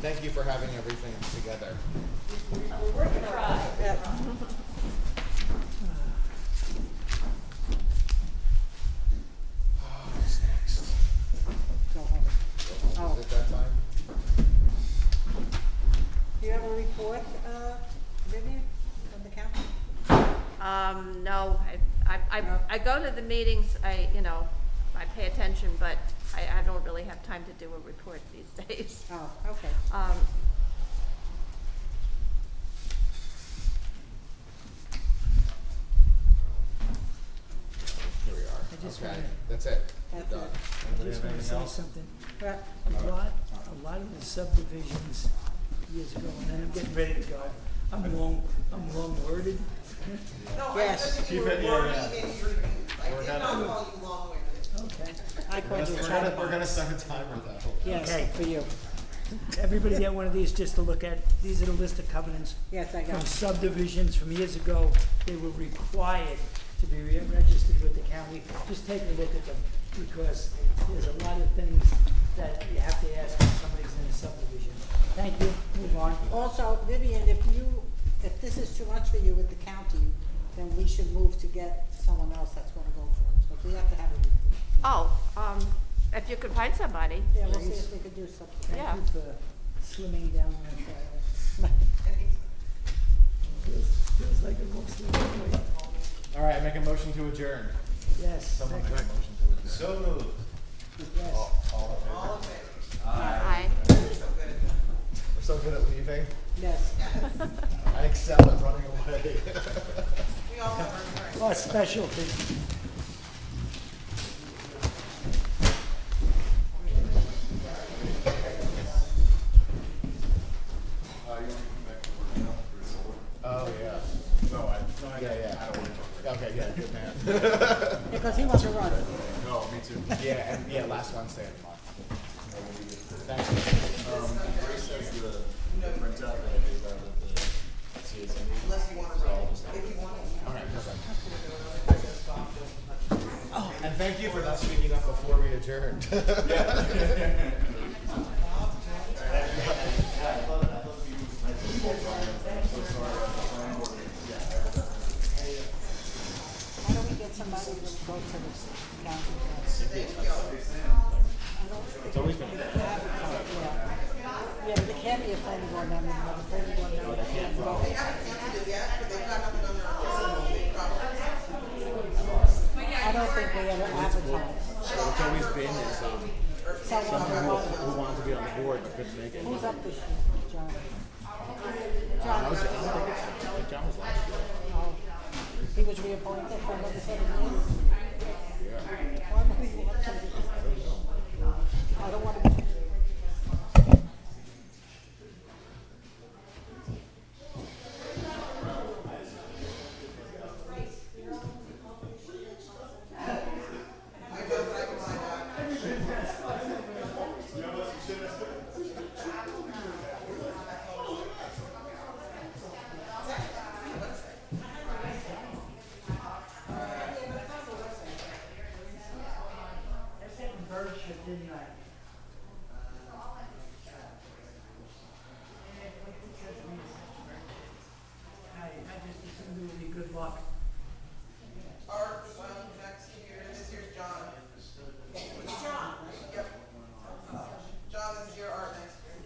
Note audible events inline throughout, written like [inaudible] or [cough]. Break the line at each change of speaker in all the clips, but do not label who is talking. thank you for having everything together.
Worth a try.
What's next?
Go home. Oh.
Is it that time?
Do you have a report, uh, Vivian, from the council?
Um, no, I, I, I, I go to the meetings, I, you know, I pay attention, but I, I don't really have time to do a report these [laughs] days.
Oh, okay.
Um,
Here we
I just
are. Okay,
wanna-
that's it. We're
That's it.
done.
I
Anybody
just
have
wanna
anything
say
else?
something.
Well,
Uh,
A lot, a lot of the subdivisions years ago, and then I'm getting ready to go. I'm long, I'm long worded.
Yes,
You were wordy and you're, I
We're
did
gonna-
not call you long-winded.
Okay.
I
We're
called you
gonna, we're
China.
gonna, we're gonna set a timer though.
Yes,
Okay.
for you.
Everybody get one of these just to look at. These are the list of covenants
Yes, I
from
got it.
subdivisions from years ago. They were required to be re- registered with the county. Just take a look at them, because there's a lot of things that you have to ask when somebody's in a subdivision. Thank you, move on.
Also, Vivian, if you, if this is too much for you with the county, then we should move to get someone else that's gonna go for it. So we have to have a meeting.
oh, um, if you could find somebody,
Yeah, we'll see
Please.
if we could do something.
Yeah.
Thank you for slimming down my Feels like a mostly employee.
All right, I make a motion to adjourn.
Yes.
Someone make a
second.
motion to adjourn. So moved.
Yes.
All, all in favor?
All of it.
I,
You're so good at that.
We're so good at leaving.
[laughs] Yes.
I excel at running [laughs] away.
We all have our strengths.
Well, specialty.
Oh, yeah.
No, I, no, I,
Yeah, yeah.
I don't want to talk about
Okay, yeah, good man. [laughs]
Because he wants to run.
it. No, me too.
Yeah, and, yeah, last Wednesday of the month. Thanks.
Um, Grace has the, the printout that I gave out at the CSM.
Unless you wanna
So
write
I'll
it.
just-
If you wanna,
All right, perfect. And thank you for not speaking up before we adjourned. [laughs]
Why don't we get somebody to go to the county?
It's always been.
Yeah, Yeah, but it can't be a planning board member, but a planning board member can vote.
they haven't canceled it yet, but they've got nothing on their own, they probably.
I don't think we ever advertise.
So it's always been is um,
Someone
someone
who-
who wanted to be on the board but couldn't make it.
Who's up this year, John?
I
John,
was, I don't think it's- I think John was last year.
oh, he was reappointed for another seven years? Why am I being elected? I don't want to.
I, I just assumed it would be good luck.
Art, well, next year, this year's John. It's John? Yep. John is your art next year.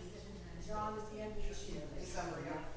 John is the end of this year. December, yeah.